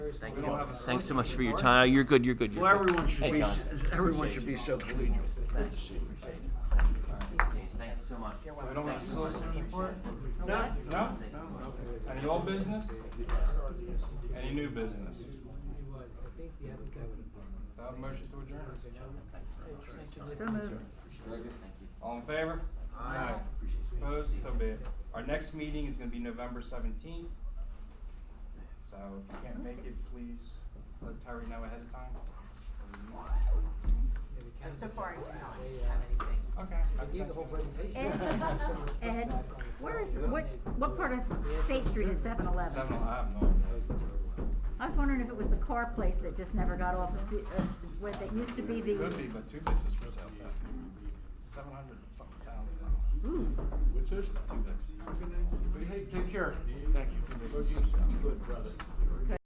Thank We you. don't have a Thanks so second. much for your time. You're good. You're good. You're Well, good. everyone should Hey, be, John. s- everyone should be so collegial. Good to see you. Thank you so much. So we don't have a solicitor report? No, No? Any old business? Any new business? Without a motion to adjourn? All in favor? Aye. Opposed? So be it. Our next meeting is gonna be November seventeenth. So if you can't make it, please let Terry know ahead of time. So far, I do not have anything. Okay. I gave the whole Ed, Ed, where is, what, what part of State Street is 7-Eleven? Seven, I have no idea. I was wondering if it was the car place that just never got off, of the- uh, what, that used to be Could be, the, but two businesses for sale, seven hundred something thousand. ooh, Two businesses. Hey, Take care. Thank you. Two businesses for sale. Good brother.